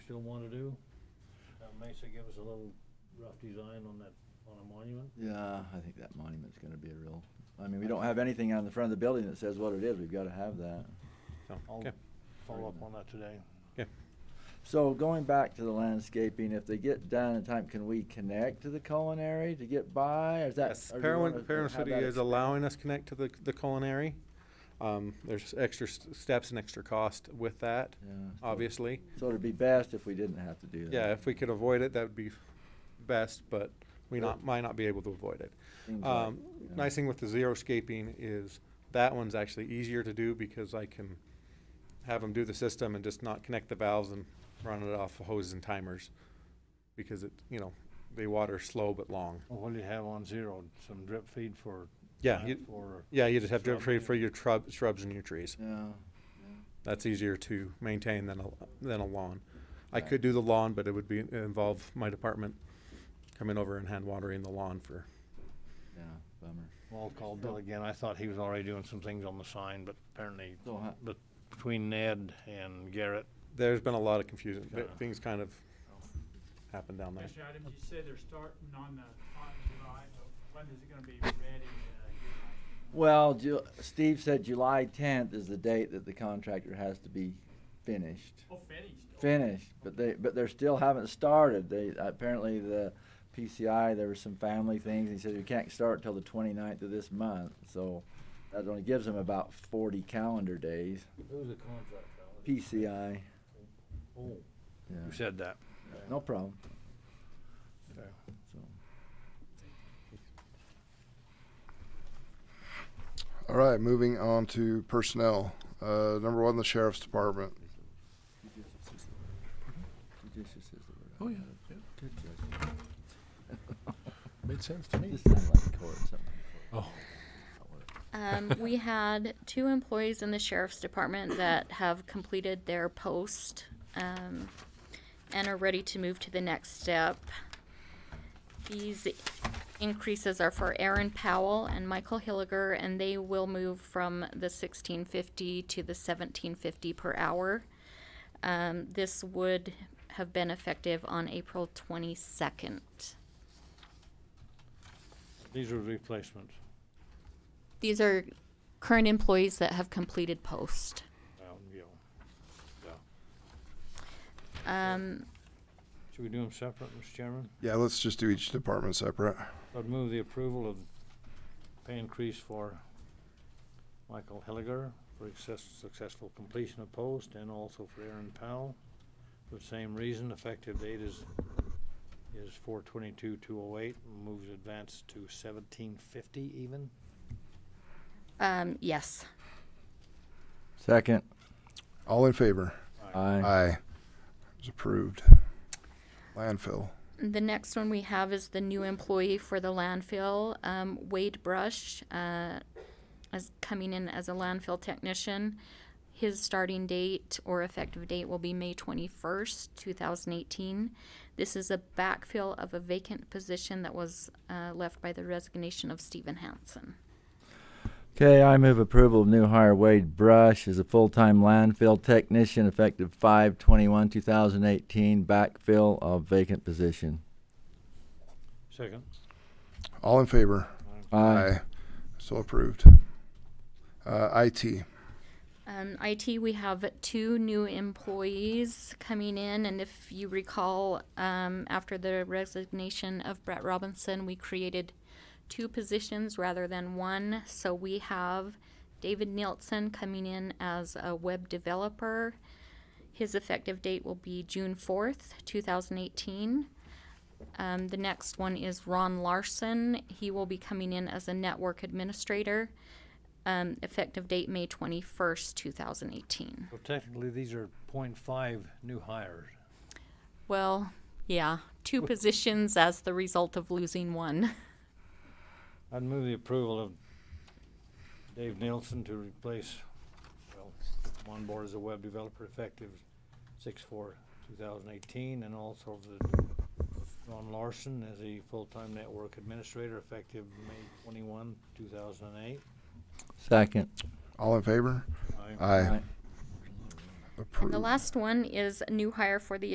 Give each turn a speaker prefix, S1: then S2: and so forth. S1: still wanna do? Uh, Mesa give us a little rough design on that, on a monument?
S2: Yeah, I think that monument's gonna be a real, I mean, we don't have anything on the front of the building that says what it is, we've gotta have that.
S3: So,
S1: I'll
S3: okay,
S1: follow up on that today.
S3: okay.
S2: So going back to the landscaping, if they get done in time, can we connect to the culinary to get by, is that?
S3: Yes,
S2: or do you wanna
S3: Parowan, Parowan
S2: have
S3: City
S2: that
S3: is allowing us connect to the, the culinary. Um, there's extra st- steps and extra cost with that,
S2: Yeah, so-
S3: obviously.
S2: So it'd be best if we didn't have to do that.
S3: Yeah, if we could avoid it, that would be best, but we
S2: Yeah.
S3: not, might not be able to avoid it.
S2: Seems like,
S3: Um,
S2: yeah.
S3: nice thing with the xeriscaping is that one's actually easier to do because I can have them do the system and just not connect the valves and run it off hoses and timers. Because it, you know, they water slow but long.
S1: Well, What do you have on zero? Some drip feed for?
S3: Yeah,
S1: uh,
S3: you-
S1: For,
S3: Yeah, you just have drip
S1: Shrub
S3: feed
S1: thing.
S3: for your shrub, shrubs and your trees.
S2: Yeah,
S3: That's easier to maintain than a, than a lawn. I
S2: Right.
S3: could do the lawn, but it would be, involve my department coming over and hand watering the lawn for,
S2: yeah, bummer.
S1: well, I'll call Bill again. I thought he was already doing some things on the sign, but apparently,
S2: So ho-
S1: but between Ned and Garrett,
S3: there's been a lot of confusion. Th-
S1: Yeah.
S3: Things kind of happened down there.
S4: Commissioner Adams, you said they're starting on the, on July, but when is it gonna be ready? uh, July?
S2: Well, Ju- Steve said July tenth is the date that the contractor has to be finished.
S4: Oh, finished. Oh,
S2: finished, but they, but they're still haven't started. They, apparently the PCI, there were some family things, he said we can't start till the 29th of this month, so that only gives them about forty calendar days.
S1: who's the contractor? on it?
S2: PCI,
S1: Oh, you
S2: yeah,
S1: said that.
S2: no problem,
S1: Okay.
S2: so.
S5: All right, moving on to personnel. Uh, number one, the sheriff's department.
S2: Judicious is the word.
S6: Oh, yeah, yeah.
S2: Good
S6: Made sense to me.
S2: This sounds like court, something.
S6: Oh.
S7: Um, we had two employees in the sheriff's department that have completed their post, um, and are ready to move to the next step. These increases are for Aaron Powell and Michael Hilliger, and they will move from the sixteen fifty to the seventeen fifty per hour. Um, this would have been effective on April twenty-second.
S1: These are replacements.
S7: These are current employees that have completed post.
S1: Well, yeah. Yeah.
S7: Um,
S1: Should we do them separate, Mr. Chairman?
S5: Yeah, let's just do each department separate.
S1: I'd move the approval of pay increase for Michael Hilliger for excess, successful completion of post and also for Aaron Powell. For the same reason, effective date is, is four twenty-two, two oh eight, moves advance to seventeen fifty even.
S7: um, yes.
S2: Second,
S5: All in favor?
S2: aye,
S5: Aye. It's approved. Landfill.
S7: The next one we have is the new employee for the landfill, um, Wade Brush, uh, is coming in as a landfill technician. His starting date or effective date will be May twenty-first, two thousand eighteen. This is a backfill of a vacant position that was, uh, left by the resignation of Stephen Hansen.
S2: Okay, I move approval of new hire Wade Brush as a full-time landfill technician effective five twenty-one, two thousand eighteen, backfill of vacant position.
S1: Second.
S5: All in favor?
S2: Aye.
S5: So approved. Uh, IT.
S7: Um, IT, we have two new employees coming in, and if you recall, um, after the resignation of Brett Robinson, we created two positions rather than one. So we have David Nielsen coming in as a web developer. His effective date will be June fourth, two thousand eighteen. Um, the next one is Ron Larson. He will be coming in as a network administrator. Um, effective date May twenty-first, two thousand eighteen.
S1: So technically, these are point five new hires.
S7: Well, yeah, two positions as the result of losing one.
S1: I'd move the approval of Dave Nielsen to replace, well, on board as a web developer effective six four two thousand eighteen, and also the Ron Larson as a full-time network administrator effective May twenty-one, two thousand and eight.
S2: Second.
S5: All in favor? Aye.
S2: Aye.
S7: And
S5: Approved.
S7: the last one is a new hire for the